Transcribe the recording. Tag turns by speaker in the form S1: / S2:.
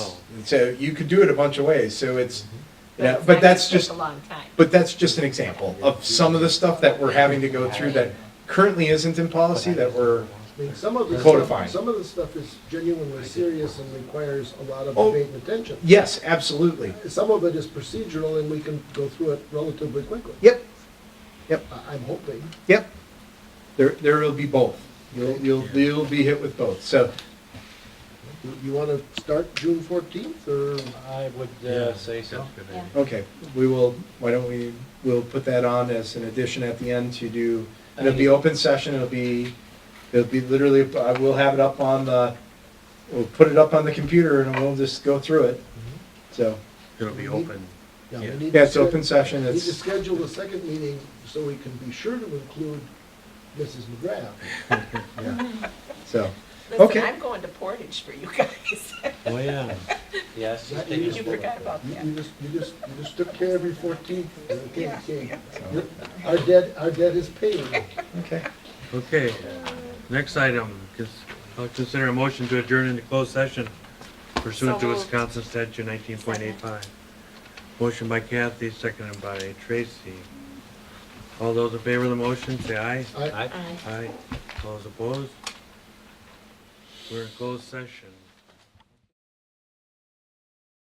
S1: And Oh. so you could do it a bunch of ways, so it's, you know,
S2: it's
S1: but
S2: not gonna
S1: that's
S2: take
S1: just,
S2: a long time.
S1: but that's just an example of some of the stuff that we're having to go through that currently isn't in policy that we're,
S3: I mean, some of the
S1: Codifying.
S3: stuff, some of the stuff is genuinely serious and requires a lot of
S1: Oh.
S3: debate and attention.
S1: yes, absolutely.
S3: Some of it is procedural and we can go through it relatively quickly.
S1: Yep,
S3: I- I'm hoping.
S1: yep. There, there will be both. You'll, you'll, you'll be hit with both, so,
S3: You- You want to start June fourteenth or?
S4: I would uh, say so.
S1: okay, we will, why don't we, we'll put that on as an addition at the end to do, and it'll be open session, it'll be, it'll be literally, I will have it up on the, we'll put it up on the computer and we'll just go through it, so.
S5: It'll be open.
S3: we
S5: Yeah.
S3: need to
S1: Mm-hmm. Yeah, it's
S3: sched-
S1: open session,
S3: Need to
S1: it's,
S3: schedule the second meeting so we can be sure to include Mrs. McGrath.
S1: so, okay.
S2: Listen, I'm going to Portage for you guys.
S4: Oh, yeah. Yes.
S3: That
S4: they
S3: is-
S4: just
S2: You
S4: work.
S2: forgot about
S3: You
S2: that.
S3: you just, you just, you just took care of your fourteenth, okay, okay.
S1: so,
S3: Our debt, our debt is paid.
S1: okay.
S5: Okay, next item, cons- I'll consider a motion to adjourn into closed session pursuant
S2: So
S5: to
S2: moved.
S5: Wisconsin statute nineteen point eight five. Motion by Kathy, seconded by Tracy. All those in favor of the motion, say aye.
S3: I-
S4: I-
S2: Aye.
S5: Aye. Those opposed? We're in closed session.